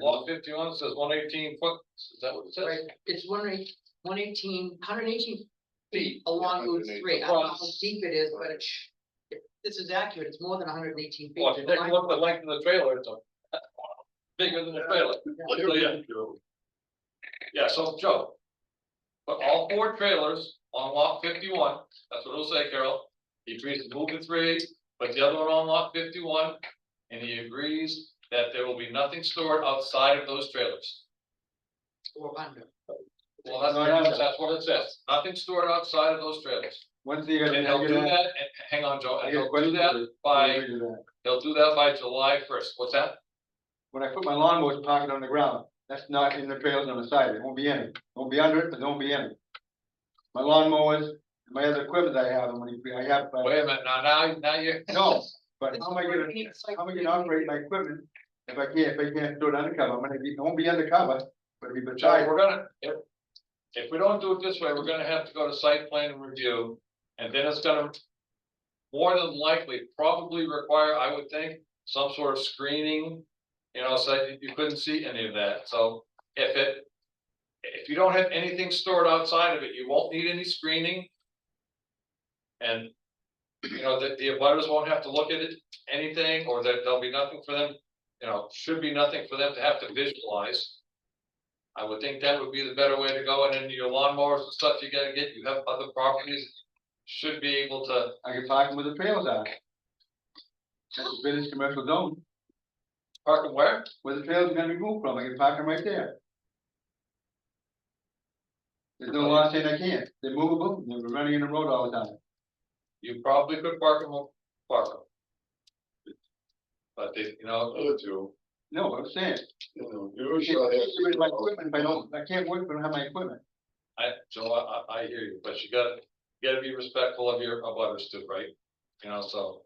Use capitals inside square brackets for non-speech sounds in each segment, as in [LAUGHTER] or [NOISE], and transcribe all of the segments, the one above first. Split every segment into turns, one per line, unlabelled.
Lot fifty-one says one eighteen foot, is that what it
Right,
says?
it's one eight, one eighteen, hundred eighteen feet
Feet.
along Route three, I don't know how
Across.
deep it is, but it's. This is accurate, it's more than hundred and eighteen feet.
Well, if you take a look at the length of the trailer, it's a. [LAUGHS] Bigger than the trailer. So, yeah. Yeah, so Joe. But all four trailers on lot fifty-one, that's what it'll say, Carol, he agrees to move the three, but the other one on lot fifty-one. And he agrees that there will be nothing stored outside of those trailers.
Or under,
Well, that's, what- that's what it says, nothing stored outside of those trailers.
When's he gonna
And he'll
measure
do that, and,
that?
and hang on, Joe,
I
and
got a
he'll do
question
that
for you.
by,
Measure that.
he'll do that by July first, what's that?
When I put my lawnmower's pocket on the ground, that's not in the trails on the side, it won't be in it, won't be under it, but don't be in it. My lawnmowers, my other equipment I have, and when I have, but,
Wait a minute, now, now, now you're.
no, but
It's
how am I gonna,
working, it's like-
how am I gonna operate my equipment? If I can't, if I can't do it undercover, I'm gonna be, it won't be undercover, but it'll be
Joe,
beside,
we're gonna, if, if we don't do it this way, we're gonna have to go to site plan review, and then it's gonna. More than likely, probably require, I would think, some sort of screening, you know, so that you couldn't see any of that, so if it. If you don't have anything stored outside of it, you won't need any screening. And, you know, the, the abutters won't have to look at it, anything, or that there'll be nothing for them, you know, should be nothing for them to have to visualize. I would think that would be the better way to go, and then your lawnmowers and stuff you gotta get, you have other properties. Should be able to,
I can park them where the trails are. That's a business commercial zone,
park them where?
where the trails are gonna be moved from, I can park them right there. There's no law saying I can't, they're movable, they're running in the road all the time.
You probably could park them, park them. But they, you know,
Other two,
No, I'm saying,
you know,
I
you
can't
should
get rid of my
have.
equipment if I don't, I can't work if I don't have my equipment.
I, Joe, I, I, I hear you, but you gotta, you gotta be respectful of your, of others too, right? You know, so,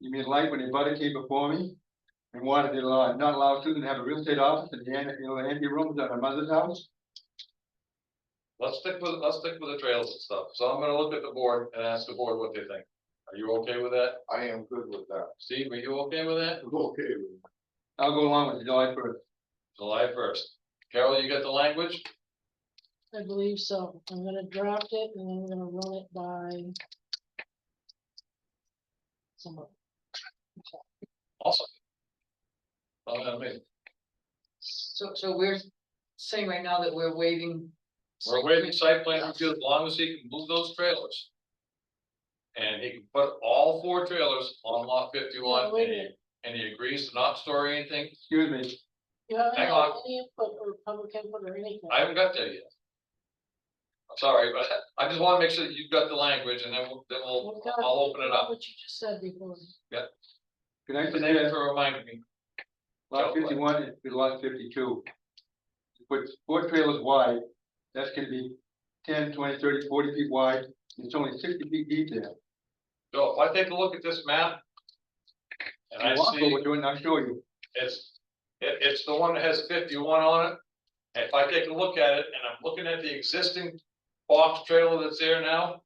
You mean like when your buddy came before me and wanted to allow, not allow Susan to have a real estate office and the, an- you know, the empty rooms at her mother's house?
let's stick with, let's stick with the trails and stuff, so I'm gonna look at the board and ask the board what they think. Are you okay with that?
I am good with that.
Steve, are you okay with that?
I'm okay with it.
I'll go along with July first.
July first. Carol, you got the language?
I believe so. I'm gonna draft it and then I'm gonna run it by. Someone.
Awesome. Well, I mean,
so, so we're saying right now that we're waiving.
we're waiving site plan review as long as he can move those trailers. And he can put all four trailers on lot fifty-one
Yeah, wait a
and he,
minute.
and he agrees to not store anything.
Excuse me,
You haven't
Hang
had
on.
any input or public input or anything.
I haven't got there yet. I'm sorry, but I just wanna make sure that you've got the language and then we'll, then we'll,
We've got-
I'll open it up.
What you just said before.
can I
Thank you
suggest
for reminding me.
lot fifty-one and lot fifty-two? Put four trailers wide, that's gonna be 10, 20, 30, 40 feet wide, it's only sixty feet deep there.
So if I take a look at this map. And I see.
We're doing, I'll show you.
It's, it, it's the one that has fifty-one on it. If I take a look at it and I'm looking at the existing box trailer that's there now.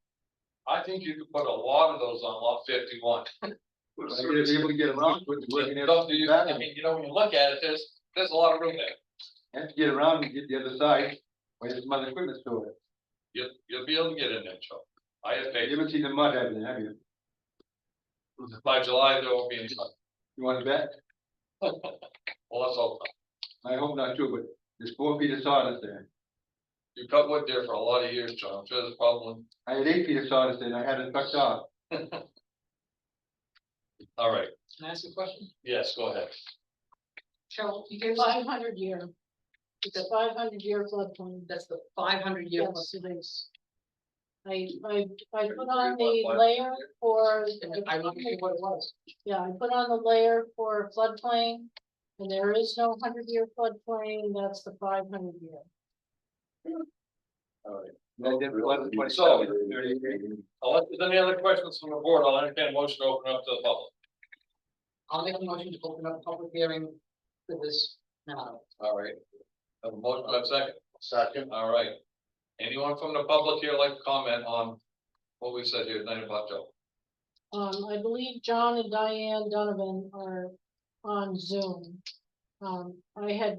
I think you could put a lot of those on lot fifty-one.
But I'm gonna be able to get around with the working. area.
Stuff that you- I
back.
mean, you know, when you look at it, there's, there's a lot of room there.
have to get around and get the other side, where there's mud equipment stored.
You'll, you'll be able to get in there, Joe. I have
You
faith.
haven't seen the mud, have you, have you?
By July, there won't be any. sun.
You wanna bet?
Well, that's all.
I hope not too, but there's four feet of sawdust there.
You cut wood there for a lot of years, Joe. I'm sure there's probably,
I had eight feet of sawdust there and I had it tucked off.
all right.
Can I ask a question?
Yes, go ahead.
Cheryl, you gave us,
Five hundred year. It's a
That-
five hundred year floodplain.
that's the five hundred year,
Yes, it is. I, I, I put on
Thirty-three
the
point five.
layer for.
and I looked at what it was.
Yeah, I put on the layer for floodplain, and there is no hundred year floodplain, that's the five hundred year.
All right.
And then the other twenty-
Oh, So- Unless there's any other questions from the board, I'll entertain a motion to open up to the public.
I'll make a motion to open up a public hearing for this now.
All right. Have a motion, have a second.
Second,
All right. Anyone from the public here like to comment on what we said here tonight about Joe?
Um, I believe John and Diane Donovan are on Zoom. Um, I had